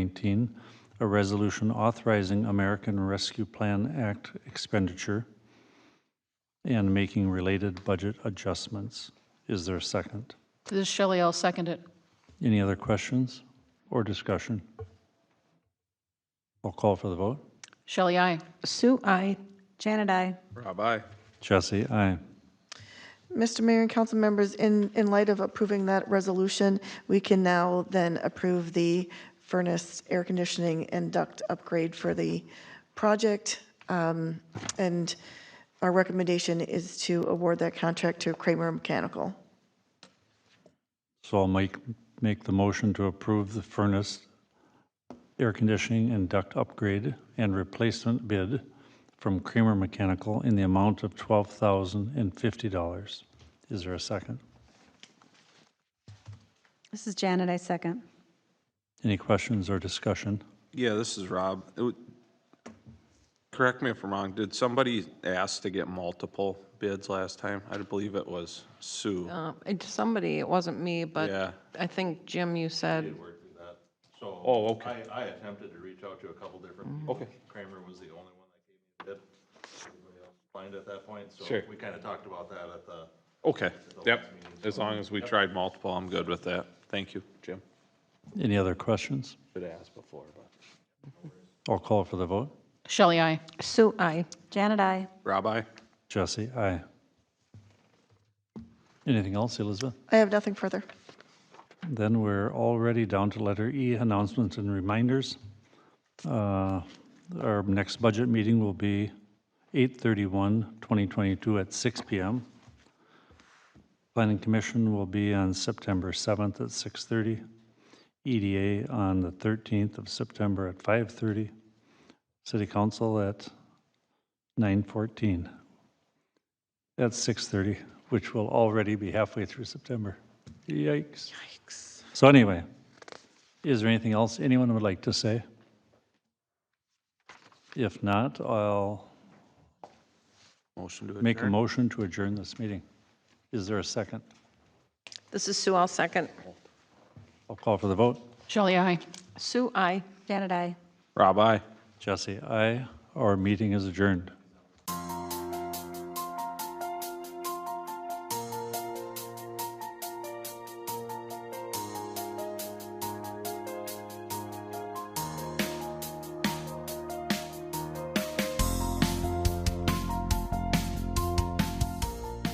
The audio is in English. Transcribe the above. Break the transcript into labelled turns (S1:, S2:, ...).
S1: 19, a resolution authorizing American Rescue Plan Act expenditure and making related budget adjustments. Is there a second?
S2: This is Shelley, I'll second it.
S1: Any other questions or discussion? I'll call for the vote.
S2: Shelley, aye.
S3: Sue, I,
S4: Janet, I.
S5: Rob, aye.
S1: Jesse, aye.
S6: Mr. Mayor and council members, in, in light of approving that resolution, we can now then approve the furnace, air conditioning, and duct upgrade for the project. Um, And our recommendation is to award that contract to Kramer Mechanical.
S1: So I'll make, make the motion to approve the furnace, air conditioning, and duct upgrade and replacement bid from Creamer Mechanical in the amount of $12,050. Is there a second?
S4: This is Janet, I second.
S1: Any questions or discussion?
S5: Yeah, this is Rob. It would- Correct me if I'm wrong, did somebody ask to get multiple bids last time? I believe it was Sue.
S3: uh, it's somebody, it wasn't me,
S5: Yeah.
S3: but I think, Jim, you said,
S7: So.
S5: Oh, okay. Mm-hmm.
S7: I, I attempted to reach out to a couple different people.
S5: Okay.
S7: Kramer was the only one that gave me a bid. Everybody else Declined at that point, so
S5: Sure.
S7: we kind of talked about that at the,
S5: Okay, yep. As long as we tried multiple, I'm good with that. Thank you, Jim.
S1: Any other questions?
S5: Should have asked before, but.
S1: I'll call for the vote.
S2: Shelley, aye.
S3: Sue, I.
S4: Janet, I.
S5: Rob, aye.
S1: Jesse, aye. Anything else, Elizabeth?
S6: I have nothing further.
S1: Then we're already down to letter E, announcements and reminders. Uh, Our next budget meeting will be 8/31/2022 at 6 PM. Planning Commission will be on September 7th at 6:30. EDA on the 13th of September at 5:30. City Council at 9:14. At 6:30, which will already be halfway through September. Yikes. So anyway, is there anything else anyone would like to say? If not, I'll
S5: Motion to
S1: make a
S5: adjourn.
S1: motion to adjourn this meeting. Is there a second?
S3: This is Sue, I'll second.
S1: I'll call for the vote.
S2: Shelley, aye.
S3: Sue, I.
S4: Janet, I.
S5: Rob, aye.
S1: Jesse, aye. Our meeting is adjourned.